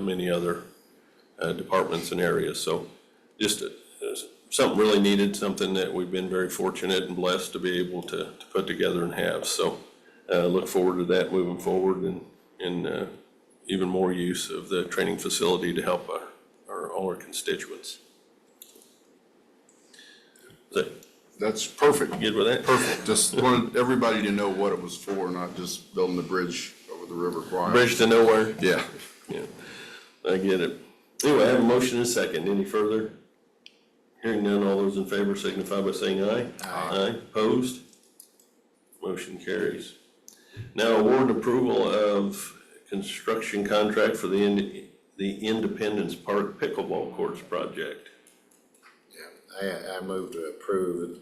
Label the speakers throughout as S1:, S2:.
S1: many other uh, departments and areas. So just uh, something really needed, something that we've been very fortunate and blessed to be able to, to put together and have. So uh, look forward to that moving forward and, and uh, even more use of the training facility to help our, our, all our constituents. Is that
S2: That's perfect.
S1: good with that?
S2: Perfect. Just wanted everybody to know what it was for, not just building the bridge over the River Kwai.
S1: Bridge to nowhere.
S2: Yeah.
S1: Yeah, I get it. Anyway, I have a motion and a second. Any further? Hearing none, all those in favor signify by saying aye. Aye. Opposed? Motion carries. Now, award approval of construction contract for the, Ind- the Independence Park Pickleball Courts project.
S3: I, I move to approve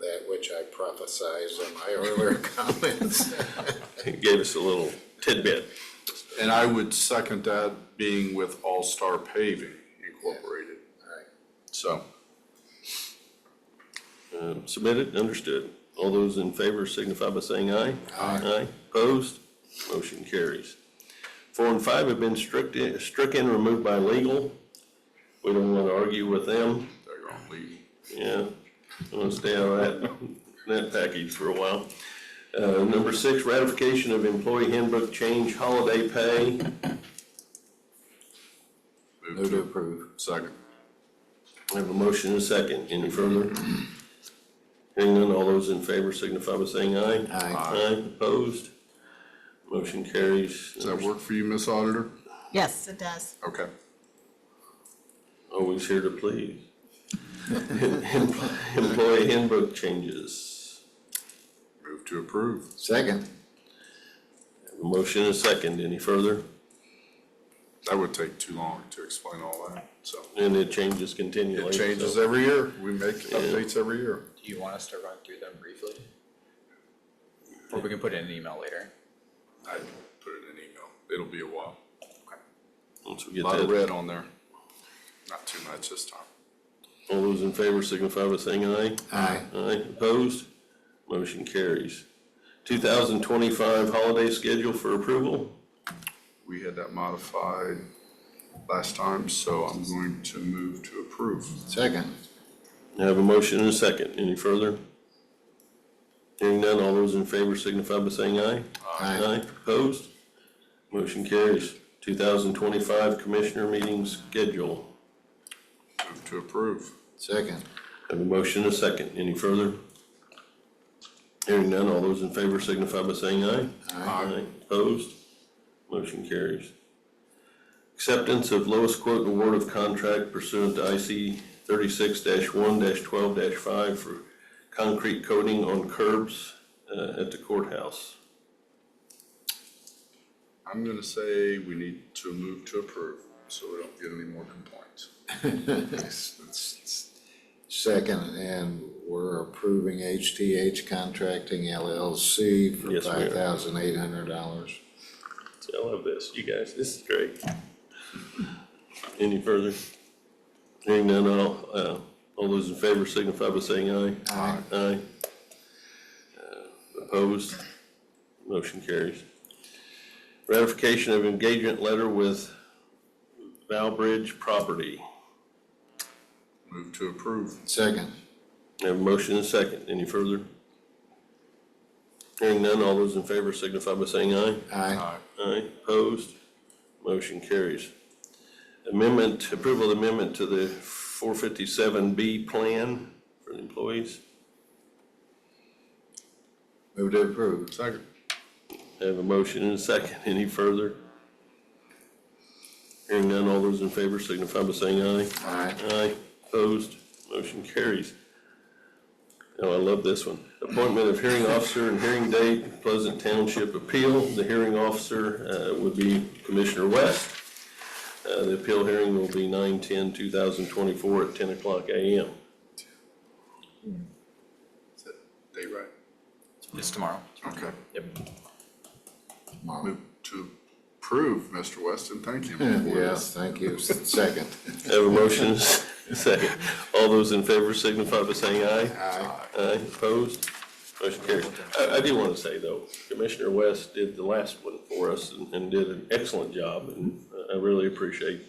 S3: that which I prophesized in my earlier comments.
S1: It gave us a little tidbit.
S2: And I would second that being with All Star Paving Incorporated. So,
S1: Uh, Submitted, understood. All those in favor signify by saying aye. Aye. Aye, opposed, motion carries. Four and five have been strict- stricken, removed by legal. We don't want to argue with them,
S2: they're gonna leave.
S1: yeah. I'm gonna stay out of that, that package for a while. Uh, Number six, ratification of employee handbook change holiday pay.
S3: Move to approve.
S2: Second.
S1: I have a motion and a second. Any further? Hearing none, all those in favor signify by saying aye.
S3: Aye.
S1: Aye, opposed? Motion carries.
S2: Does that work for you, Miss Auditor?
S4: Yes, it does.
S2: Okay.
S1: Always here to please. Employee handbook changes.
S2: Move to approve.
S3: Second.
S1: I have a Motion and a second. Any further?
S2: That would take too long to explain all that, so.
S1: And the changes continue
S2: It
S1: later.
S2: changes
S1: so-
S2: every year. We make updates every year.
S5: Do you want us to run through them briefly? Or we can put it in an email later?
S2: I put it in email. It'll be a while.
S1: Once we
S2: A
S1: get
S2: Lot of
S1: that,
S2: red on there. Not too much this time.
S1: all those in favor signify by saying aye.
S3: Aye.
S1: Aye, opposed? Motion carries. Two thousand twenty-five holiday schedule for approval?
S2: We had that modified last time, so I'm going to move to approve.
S3: Second.
S1: I have a motion and a second. Any further? Hearing none, all those in favor signify by saying aye.
S3: Aye.
S1: Opposed? Motion carries. Two thousand twenty-five Commissioner Meeting Schedule.
S2: Move to approve.
S3: Second.
S1: I have a motion and a second. Any further? Hearing none, all those in favor signify by saying aye. Aye. Opposed? Motion carries. Acceptance of lowest quote award of contract pursuant to IC thirty-six one twelve five for concrete coating on curbs, uh, at the courthouse.
S2: I'm gonna say we need to move to approve, so we don't get any more complaints.
S3: Second, and we're approving HTH Contracting LLC for
S1: Yes, we are.
S3: five thousand eight hundred dollars.
S1: See, I love this, you guys, this is great. Any further? Hearing none, all, uh, all those in favor signify by saying aye. Aye. Aye. Uh, Opposed? Motion carries. Ratification of engagement letter with Valbridge Property.
S2: Move to approve.
S3: Second.
S1: Have a motion and a second, any further? Hearing none, all those in favor signify by saying aye.
S3: Aye.
S1: Aye, opposed, motion carries. Amendment, approval of amendment to the four fifty-seven B plan for the employees.
S3: Move to approve.
S2: Second.
S1: Have a motion and a second, any further? Hearing none, all those in favor signify by saying aye.
S3: Aye.
S1: Aye, opposed, motion carries. Oh, I love this one. Appointment of hearing officer and hearing date, Pleasant Township appeal. The hearing officer uh, would be Commissioner West. Uh, The appeal hearing will be 9-10-2024 at ten o'clock AM.
S2: Is that Day right?
S5: It's tomorrow.
S2: Okay.
S5: Yep.
S3: Mark.
S2: Move to approve, Mr. Weston. Thank you.
S3: Yes, thank you. Second.
S1: I Have a motion, and a second. All those in favor signify by saying aye.
S3: Aye.
S1: Aye, opposed, motion carries. I, I do want to say, though, Commissioner West did the last one for us and, and did an excellent job, and uh, I really appreciate